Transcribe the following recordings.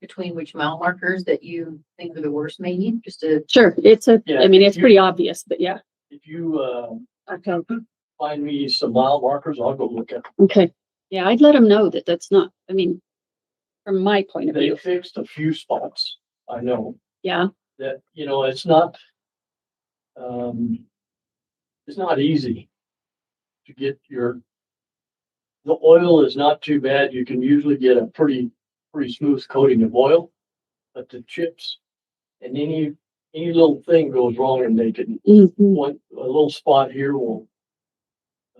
between which mile markers that you think are the worst maybe, just to, Sure, it's a, Yeah, I mean, it's you- pretty obvious, but yeah. If you, uh, Okay. find me some mile markers, I'll go look at them. Okay, yeah, I'd let them know that that's not, I mean, from my point of They view, fixed a few spots, I know, yeah, that, you know, it's not, um, it's not easy to get your, the oil is not too bad. You can usually get a pretty, pretty smooth coating of oil, but the chips and any, any little thing goes wrong and they can mhm, one, a little spot here will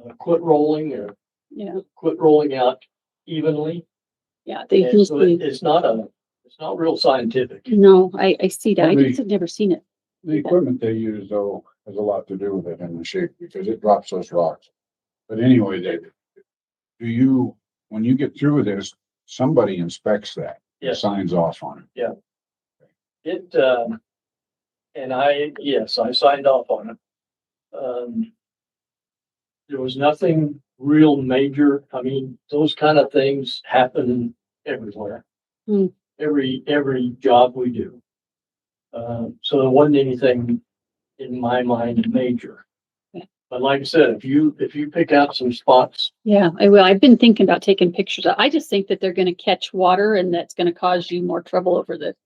uh, quit rolling or yeah, quit rolling out evenly. yeah, they And so it- usually, it's not a, it's not real scientific. no, I, I see that. I Probably- just have never seen it. The equipment they use though has a lot to do with it and the shape because it drops those rocks. But anyway, they, do you, when you get through with this, somebody inspects that, Yes, signs off on it. it, um, and I, yes, I signed off on it. Um, there was nothing real major. I mean, those kind of things happen everywhere. Hmm. Every, every job we do. Um, so there wasn't anything in my mind major. Okay. But like I said, if you, if you pick out some spots, Yeah, I will. I've been thinking about taking pictures. I just think that they're gonna catch water and that's gonna cause you more trouble over the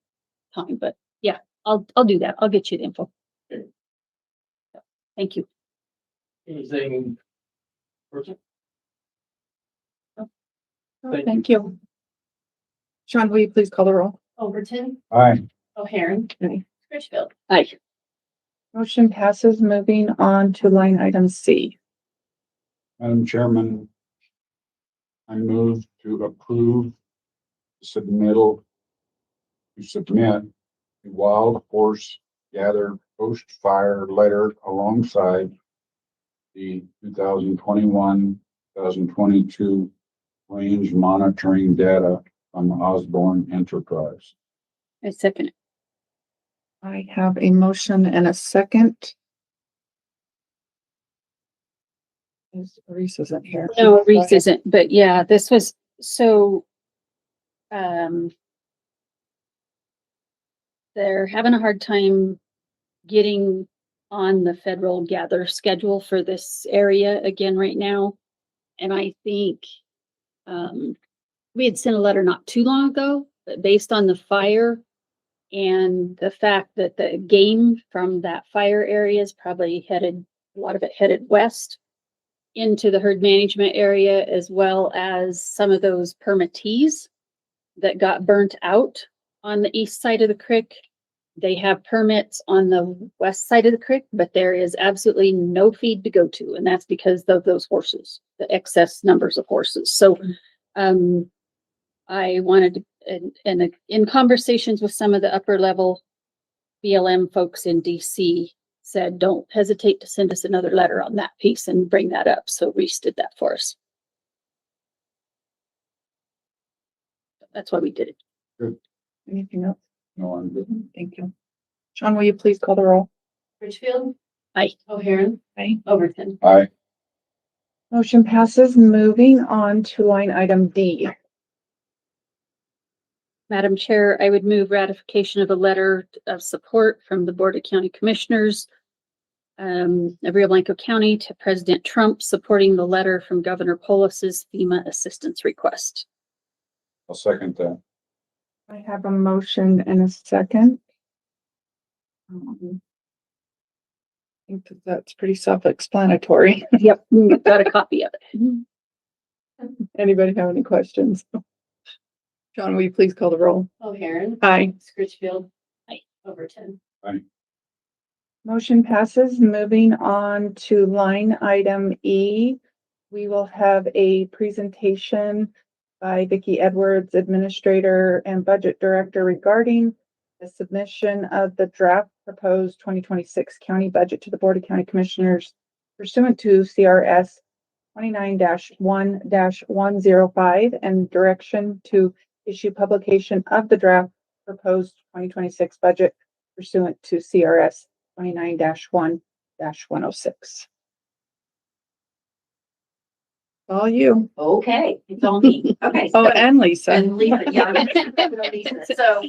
time, but yeah, I'll, I'll do that. I'll get you the info. Okay. Thank you. anything. Person? Thank you. Oh, Thank you. Sean, will you please call the roll? Overton, Aye. O'Hairn, Aye. Scritchfield. Aye. Motion passes. Moving on to line item C. Madam Chairman, I move to approve submittal to submit the wild horse gather post fire letter alongside the two thousand twenty-one, two thousand twenty-two range monitoring data from Osborne Enterprise. I second it. I have a motion and a second. Is- Reese isn't here. No, Reese isn't, but yeah, this was, so, um, they're having a hard time getting on the federal gather schedule for this area again right now. And I think, um, we had sent a letter not too long ago, but based on the fire and the fact that the game from that fire area is probably headed, a lot of it headed west into the herd management area as well as some of those permittees that got burnt out on the east side of the creek. They have permits on the west side of the creek, but there is absolutely no feed to go to, and that's because of those horses, the excess numbers of horses. So, um, I wanted, to- and, and in conversations with some of the upper level BLM folks in DC, said, don't hesitate to send us another letter on that piece and bring that up. So Reese did that for us. That's why we did it. Anything else? No, I'm good. Thank you. Sean, will you please call the roll? Scritchfield. Aye. O'Hairn, Aye. Overton. Aye. Motion passes. Moving on to line item D. Madam Chair, I would move ratification of a letter of support from the Board of County Commissioners um, of Rio Blanco County to President Trump, supporting the letter from Governor Polis's FEMA assistance request. I'll second that. I have a motion and a second. Um, I think that that's pretty self-explanatory. Yep. Got a copy of it. Anybody have any questions? John, will you please call the roll? O'Hairn, Aye. Scritchfield. Aye. Overton. Motion passes. Moving on to line item E. We will have a presentation by Vicki Edwards, Administrator and Budget Director regarding the submission of the draft proposed twenty twenty-six county budget to the Board of County Commissioners pursuant to CRS twenty-nine one one zero five and direction to issue publication of the draft proposed twenty twenty-six budget pursuant to CRS twenty-nine one one oh six. All you. Okay, it's all me. Okay. Oh, so- and Lisa. And Lisa, yeah. I'm gonna- I'm gonna Lisa. So